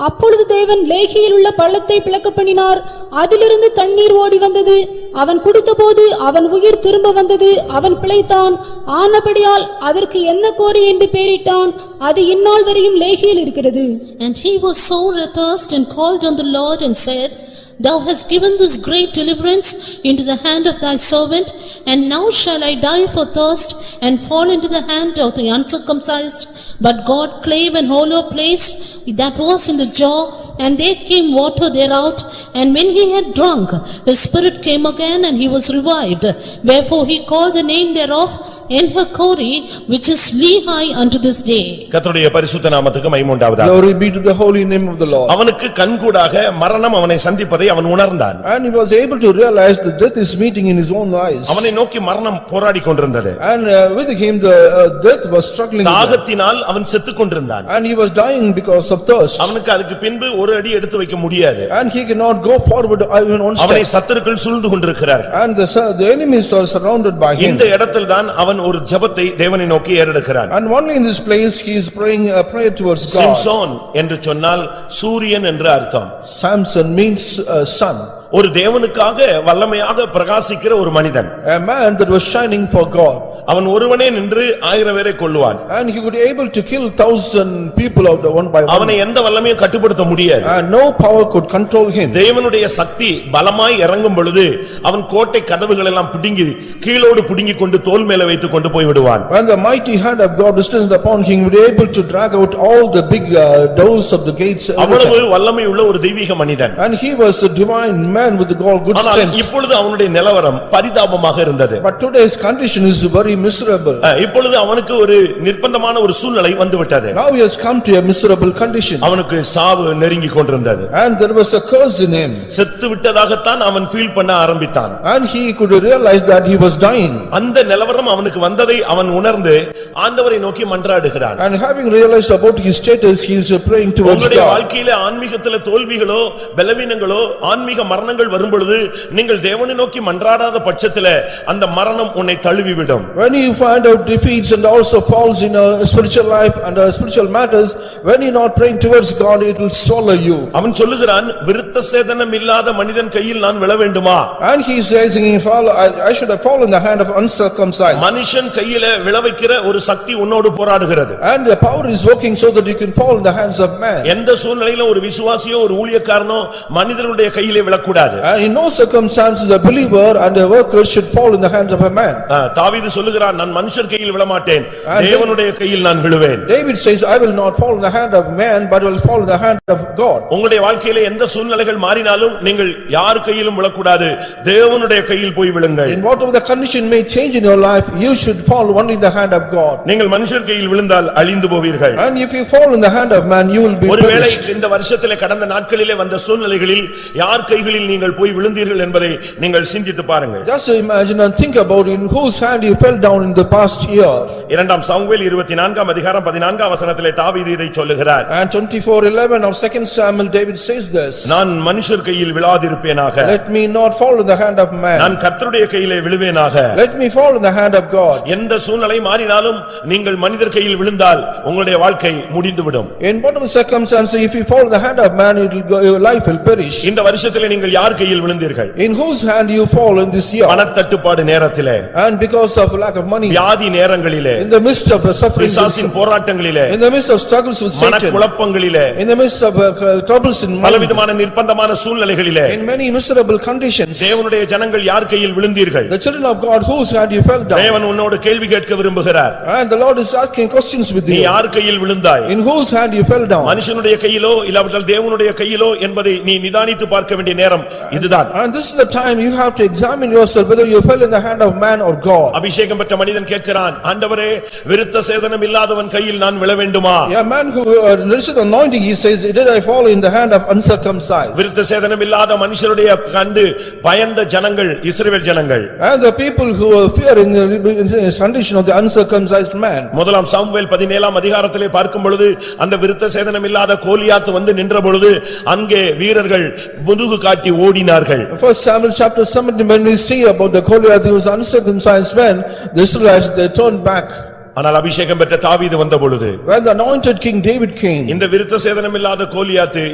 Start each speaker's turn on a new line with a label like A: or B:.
A: அப்பொழுது தேவன் லேகியில் உள்ள பள்ளத்தை பிளக்க பண்ணினார் அதிலிருந்து தண்ணீர் ஓடி வந்தது அவன் குடித்தபோது அவன் உயிர் திரும்ப வந்தது அவன் பிழைத்தான் ஆனபடியால் அதற்கு என்ன கோரி என்று பெயரிட்டான் அது இந்நாள் வரையும் லேகியில் இருக்கிறது
B: And he was sore athirst and called on the Lord and said, Thou hast given this great deliverance into the hand of thy servant, and now shall I die for thirst and fall into the hand of the uncircumcised. But God clave an hollow place that was in the jaw, and there came water thereout. And when he had drunk, his spirit came again, and he was revived. Wherefore he called the name thereof Enhakori, which is Lehi unto this day.
C: கர்த்தருடைய பரிசுத்த நாமத்துக்கு மைமுண்டாவதாக
D: Glory be to the holy name of the Lord.
C: அவனுக்கு கண்கூடாக மரணம் அவனை சந்திப்பதை அவன் உணர்ந்தான்
D: And he was able to realize that death is meeting in his own eyes.
C: அவனை நோக்கி மரணம் போராடி கொண்டிருந்தது
D: And uh, with him, the uh, death was struggling with him.
C: தாகத்தினால் அவன் செத்துக் கொண்டிருந்தான்
D: And he was dying because of thirst.
C: அவனுக்கு அதுக்கு பின்பு ஒரு அடி எடுத்து வைக்க முடியாது
D: And he cannot go forward even one
C: அவனை
D: step.
C: சத்துருக்கள் சூழ்ந்து கொண்டிருக்கிறார்
D: And the sur- the enemies are surrounded by him.
C: இந்த இடத்தில்தான் அவன் ஒரு ஜெபத்தை தேவனை நோக்கி ஏறெடுக்கிறான்
D: And only in this place, he is praying a prayer towards God.
C: Samson என்று சொன்னால் சூரியன் என்று அர்த்தம்
D: Samson means uh, sun,
C: ஒரு தேவனுக்காக வல்லமையாக பிரகாசிக்கிற ஒரு மனிதன்
D: a man that was shining for God.
C: அவன் ஒருவனே நின்று ஆயிரம் பேரை கொள்ளுவான்
D: And he would able to kill thousand people out of one by one.
C: அவனை எந்த வல்லமையும் கட்டுப்படுத்த முடியாது
D: And no power could control him.
C: தேவனுடைய சக்தி பலமாய் இறங்கும் பொழுது அவன் கோட்டை கதவுகள் எல்லாம் பிடுங்கி கீழோடு பிடுங்கிக் கொண்டு தோல் மேல வைத்துக் கொண்டு போய் விடுவான்
D: When the mighty hand of God descended upon him, he was able to drag out all the big uh, doors of the gates. every
C: அவ்வளவு
D: time.
C: வல்லமை உள்ள ஒரு தெய்வீக மனிதன்
D: And he was a divine man with all good
C: ஆனால்
D: strength.
C: இப்பொழுது அவனுடைய நிலவரம் பரிதாபமாக இருந்தது
D: But today's condition is very miserable.
C: அஹ், இப்பொழுது அவனுக்கு ஒரு நிர்பந்தமான ஒரு சூழ்நிலை வந்துவிட்டது
D: Now he has come to a miserable condition.
C: அவனுக்கு சாவு நெருங்கிக் கொண்டிருந்தது
D: And there was a curse in him.
C: செத்து விட்டதாகத்தான் அவன் ஃபீல் பண்ண ஆரம்பித்தான்
D: And he could realize that he was dying.
C: அந்த நிலவரம் அவனுக்கு வந்ததை அவன் உணர்ந்து ஆண்டவரை நோக்கி மன்றாடுகிறான்
D: And having realized about his status, he is praying towards
C: உங்களுடைய
D: God.
C: வாழ்க்கையில ஆன்மீகத்தில தோல்விகளோ பலவீனங்களோ ஆன்மீக மரணங்கள் வரும்பொழுது நீங்கள் தேவனை நோக்கி மன்றாடாத பட்சத்தில அந்த மரணம் உன்னை தழுவிவிடும்
D: When you find out defeats and also falls in a spiritual life and uh, spiritual matters, when you're not praying towards God, it will swallow you.
C: அவன் சொல்லுகிறான் விருத்த சேதனம் இல்லாத மனிதன் கையில் நான் விழ வேண்டுமா
D: And he says, "If I I should have fallen in the hand of uncircumcised."
C: மனுஷன் கையில விழ வைக்கிற ஒரு சக்தி உன்னோடு போராடுகிறது
D: And the power is working so that you can fall in the hands of man.
C: எந்த சூழ்நிலையிலும் ஒரு விசுவாசியோ ஒரு ஊழியக்காரனோ மனிதனுடைய கையிலே விழக்கூடாது
D: And in no circumstances a believer and a worker should fall in the hands of a man.
C: ஆ, தாவீது சொல்லுகிறான் நான் மனுஷர் கையில் விழமாட்டேன் தேவனுடைய கையில் நான் விழுவேன்
D: David says, "I will not fall in the hand of man, but will fall in the hand of God."
C: உங்களுடைய வாழ்க்கையில எந்த சூழ்நிலைகள் மாறினாலும் நீங்கள் யார் கையிலும் விழக்கூடாது தேவனுடைய கையில் போய் விழுங்கள்
D: And whatever the condition may change in your life, you should fall only in the hand of God.
C: நீங்கள் மனுஷர் கையில் விழுந்தால் அழிந்து போவீர்கள்
D: And if you fall in the hand of man, you will be
C: ஒருவேளை
D: punished.
C: இந்த வருஷத்திலே கடந்த நாட்களிலே வந்த சூழ்நிலைகளில் யார் கைகளில் நீங்கள் போய் விழுந்தீர்கள் என்பதை நீங்கள் சிந்தித்து பாருங்கள்
D: Just imagine and think about in whose hand you fell down in the past year.
C: இரண்டாம் சாமுவேல் இருபத்தி நான்காம் அதிகாரம் பதினான்காம் வசனத்திலே தாவீது இதை சொல்லுகிறார்
D: And twenty-four eleven of second Samuel, David says this,
C: நான் மனுஷர் கையில் விழாதிருப்பேனாக
D: "Let me not fall in the hand of man,
C: நான் கர்த்தருடைய கையிலே விழுவேனாக
D: let me fall in the hand of God."
C: எந்த சூழ்நிலை மாறினாலும் நீங்கள் மனிதர் கையில் விழுந்தால் உங்களுடைய வாழ்க்கை முடிந்துவிடும்
D: In whatever circumstance, if you fall in the hand of man, it will go, your life will perish.
C: இந்த வருஷத்திலே நீங்கள் யார் கையில் விழுந்தீர்கள்
D: In whose hand you fall in this year?
C: பணத்தட்டுப்பாடு நேரத்திலே
D: And because of lack of money,
C: வியாதி நேரங்களிலே
D: in the midst of suffering,
C: பிசாசின் போராட்டங்களிலே
D: in the midst of struggles with Satan,
C: மனக்குழப்பங்களிலே
D: in the midst of uh, troubles in money,
C: பலவிதமான நிர்பந்தமான சூழ்நிலைகளிலே
D: in many miserable conditions,
C: தேவனுடைய ஜனங்கள் யார் கையில் விழுந்தீர்கள்
D: the children of God, whose hand you fell down?
C: தேவன் உன்னோடு கேள்வி கேட்க விரும்புகிறார்
D: And the Lord is asking questions with
C: நீ
D: you.
C: யார் கையில் விழுந்தாய்
D: In whose hand you fell down?
C: மனுஷனுடைய கையிலோ இல்லாவிட்டால் தேவனுடைய கையிலோ என்பதை நீ நிதானித்து பார்க்க வேண்டிய நேரம் இதுதான்
D: And this is the time you have to examine yourself whether you fell in the hand of man or God.
C: அபிஷேகம் பெற்ற மனிதன் கேட்கிறான் ஆண்டவரே விருத்த சேதனம் இல்லாதவன் கையில் நான் விழ வேண்டுமா
D: A man who uh, received anointing, he says, "Did I fall in the hand of uncircumcised?"
C: விருத்த சேதனம் இல்லாத மனுஷருடைய கண்டு பயந்த ஜனங்கள் இஸ்ரவேல் ஜனங்கள்
D: And the people who were fearing uh, the condition of the uncircumcised man.
C: முதலாம் சாமுவேல் பதினேலாம் அதிகாரத்திலே பார்க்கும் பொழுது அந்த விருத்த சேதனம் இல்லாத கோலியாத்து வந்து நின்ற பொழுது அங்கே வீரர்கள் முதுகு காட்டி ஓடினார்கள்
D: First Samuel chapter 17, when we see about the Goliath, he was uncircumcised man, the Israelites, they turned back.
C: ஆனால் அபிஷேகம் பெற்ற தாவீது வந்த பொழுது
D: When the anointed king David came.
C: இந்த விருத்த சேதனம் இல்லாத கோலியாத்து